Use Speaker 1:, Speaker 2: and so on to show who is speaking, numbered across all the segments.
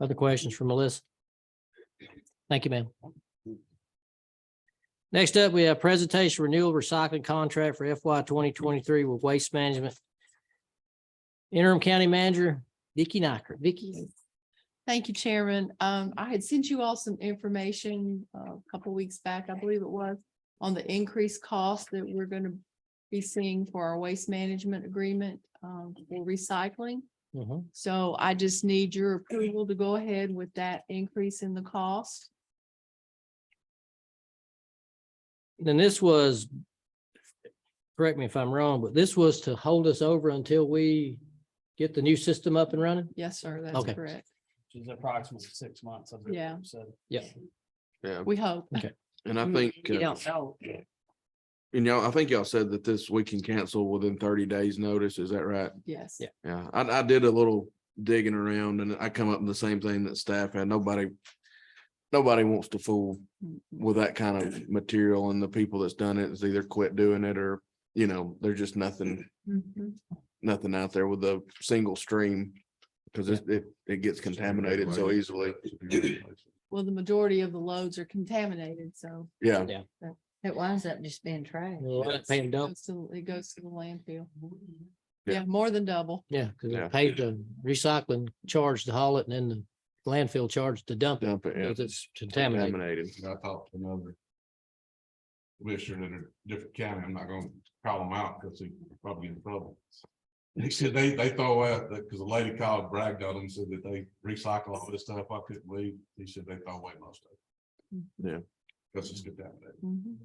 Speaker 1: Other questions from Melissa? Thank you, ma'am. Next up, we have presentation renewal recycling contract for FY twenty twenty-three with Waste Management. Interim County Manager Vicky Nyker. Vicky,
Speaker 2: Thank you, Chairman. Um, I had sent you all some information uh, a couple weeks back, I believe it was, on the increased cost that we're going to be seeing for our waste management agreement um, for recycling.
Speaker 1: Mhm.
Speaker 2: So I just need your approval to go ahead with that increase in the cost.
Speaker 1: then this was, correct me if I'm wrong, but this was to hold us over until we get the new system up and running?
Speaker 2: Yes, sir,
Speaker 1: Okay.
Speaker 2: that's correct.
Speaker 3: which is approximately six months. I believe,
Speaker 2: Yeah.
Speaker 3: So.
Speaker 4: Yeah,
Speaker 2: We hope.
Speaker 4: and I
Speaker 1: Mm,
Speaker 4: think,
Speaker 1: you
Speaker 4: uh,
Speaker 1: don't
Speaker 3: So,
Speaker 4: and y'all, I think y'all said that this, we can cancel within thirty days notice. Is that right?
Speaker 2: Yes.
Speaker 1: Yeah.
Speaker 4: Yeah, I, I did a little digging around and I come up with the same thing that staff had. Nobody, nobody wants to fool with that kind of material and the people that's done it is either quit doing it or, you know, there's just nothing,
Speaker 2: Mhm.
Speaker 4: nothing out there with a single stream. Cause it, it, it gets contaminated so easily.
Speaker 2: Well, the majority of the loads are contaminated, so
Speaker 4: Yeah,
Speaker 5: It winds up just being trash.
Speaker 1: We'll let it pay and
Speaker 2: it
Speaker 1: dump.
Speaker 2: goes to it goes to the landfill.
Speaker 4: Yeah.
Speaker 2: Yeah, more than double.
Speaker 1: Yeah, because
Speaker 4: Yeah.
Speaker 1: it paid the recycling charge to haul it and then the landfill charge to dump it
Speaker 4: dump it. yeah, Mm-hmm.
Speaker 1: because it's contaminated.
Speaker 6: And I talked to another commissioner in a different county. I'm not gonna call him out because he probably in trouble. He said they, they throw out, because a lady called, bragged on him, said that they recycle all this stuff. I couldn't believe. He said they throw away most of it.
Speaker 4: Yeah.
Speaker 6: That's just contaminated.
Speaker 2: Mhm.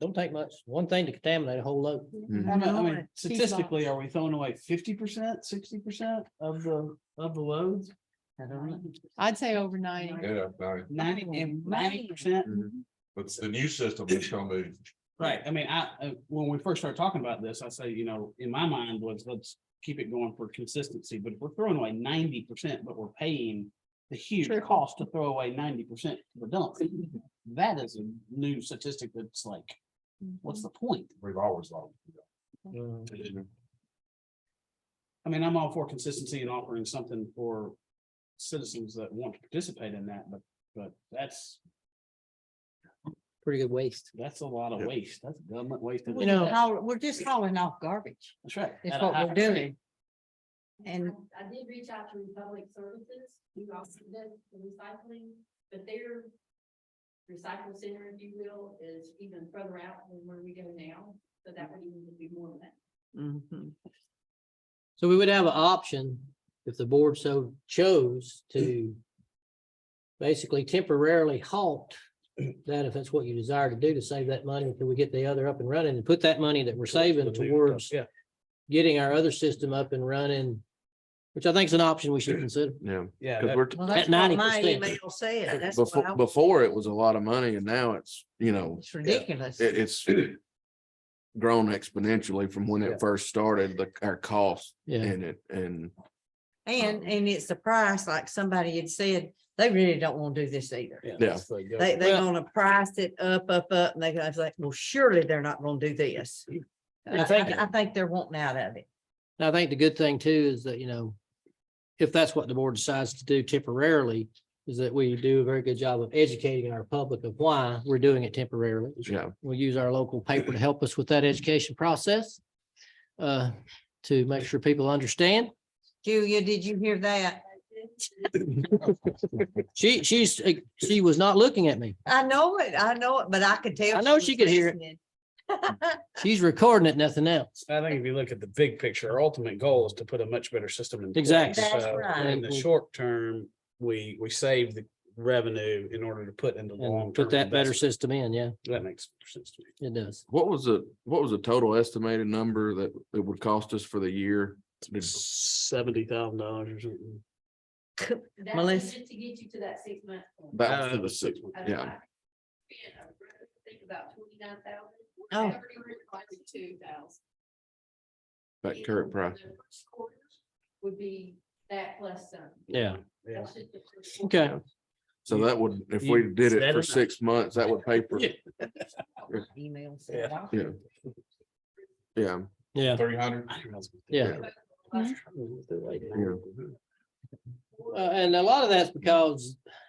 Speaker 1: Don't take much. One thing to contaminate a whole load.
Speaker 4: Mhm.
Speaker 3: I mean- I
Speaker 2: Mhm.
Speaker 3: mean, statistically, are we throwing away fifty percent, sixty percent of the, of the loads? I don't know.
Speaker 2: I'd say over ninety.
Speaker 6: Yeah,
Speaker 3: Ninety, ninety percent,
Speaker 6: but the new system is gonna be.
Speaker 3: right? I mean, I, uh, when we first started talking about this, I say, you know, in my mind was, let's keep it going for consistency, but if we're throwing away ninety percent, but we're paying the huge
Speaker 2: Sure.
Speaker 3: cost to throw away ninety percent for dump, that is a new statistic that's like, what's the point?
Speaker 6: We've always loved.
Speaker 5: Mm-hmm.
Speaker 1: Mm,
Speaker 3: I mean, I'm all for consistency and offering something for citizens that want to participate in that, but, but that's,
Speaker 1: Pretty good waste.
Speaker 3: that's a lot of
Speaker 4: Yeah.
Speaker 3: waste. That's government waste.
Speaker 1: You know-
Speaker 5: We're just hauling off garbage.
Speaker 3: That's right.
Speaker 5: It's
Speaker 3: At a
Speaker 5: what
Speaker 3: high
Speaker 5: we're
Speaker 3: rate.
Speaker 5: doing. And
Speaker 7: I I did reach out to Republic Services, who also does the recycling, but their recycle center, if you will, is even further out than where we go now, so that would even be more than that.
Speaker 1: So we would have an option if the board so chose to basically temporarily halt that if that's what you desire to do to save that money until we get the other up and running and put that money that we're saving towards
Speaker 3: Yeah.
Speaker 1: getting our other system up and running, which I think is an option we should consider.
Speaker 4: Yeah,
Speaker 3: Yeah.
Speaker 4: because
Speaker 3: that-
Speaker 4: we're,
Speaker 5: well, that's
Speaker 1: At
Speaker 5: what my
Speaker 1: 90%.
Speaker 5: email said. That's what I
Speaker 4: before,
Speaker 5: was-
Speaker 4: before it was a lot of money and now it's, you know,
Speaker 5: It's ridiculous.
Speaker 4: it, it's grown exponentially from when
Speaker 3: Yeah.
Speaker 4: it first started, the, our cost
Speaker 1: Yeah.
Speaker 4: and it, and
Speaker 5: And, and it's the price, like somebody had said, they really don't want to do this either.
Speaker 4: Yeah.
Speaker 5: They, they
Speaker 1: Well-
Speaker 5: gonna price it up, up, up, and they, I was like, well, surely they're not gonna do this.
Speaker 1: I
Speaker 5: I
Speaker 1: think-
Speaker 5: think, I think they're wanting out of it.
Speaker 1: And I think the good thing too is that, you know, if that's what the board decides to do temporarily, is that we do a very good job of educating our public of why we're doing it temporarily.
Speaker 4: Yeah.
Speaker 1: We'll use our local paper to help us with that education process uh, to make sure people understand.
Speaker 5: Julia, did you hear that?
Speaker 1: She, she's, she was not looking at me.
Speaker 5: I know it, I know it, but I could tell.
Speaker 1: I know she could hear it. She's recording it, nothing else.
Speaker 3: I think if you look at the big picture, our ultimate goal is to put a much better system in. place.
Speaker 1: Exactly.
Speaker 5: That's
Speaker 3: So,
Speaker 5: right.
Speaker 3: In the short term, we, we save the revenue in order to put into long.
Speaker 1: And put that better system in. Yeah,
Speaker 3: That makes sense to me.
Speaker 1: it does.
Speaker 4: what was the, what was the total estimated number that it would cost us for the year? Did-
Speaker 3: Seventy thousand dollars or something.
Speaker 7: That's
Speaker 5: Melissa?
Speaker 7: just To get you to that six month. point.
Speaker 4: That was
Speaker 3: Uh,
Speaker 4: for the six,
Speaker 7: I don't know,
Speaker 4: yeah,
Speaker 7: I Spent, I uh, think about twenty nine thousand.
Speaker 5: Oh.
Speaker 7: Two thousand.
Speaker 4: that current price.
Speaker 7: Would be that plus some.
Speaker 1: Yeah.
Speaker 3: Yeah.
Speaker 7: That's just the first quarter.
Speaker 1: Okay.
Speaker 4: So that would, if
Speaker 3: You
Speaker 4: we did
Speaker 3: said
Speaker 4: it for
Speaker 3: it.
Speaker 4: six months, that would pay for,
Speaker 3: Yeah.
Speaker 5: Emails.
Speaker 3: Yeah.
Speaker 4: Yeah. yeah,
Speaker 1: Yeah.
Speaker 6: Three hundred.
Speaker 3: I didn't realize it was
Speaker 1: Yeah.
Speaker 4: Yeah.
Speaker 1: Uh, and a lot of that's because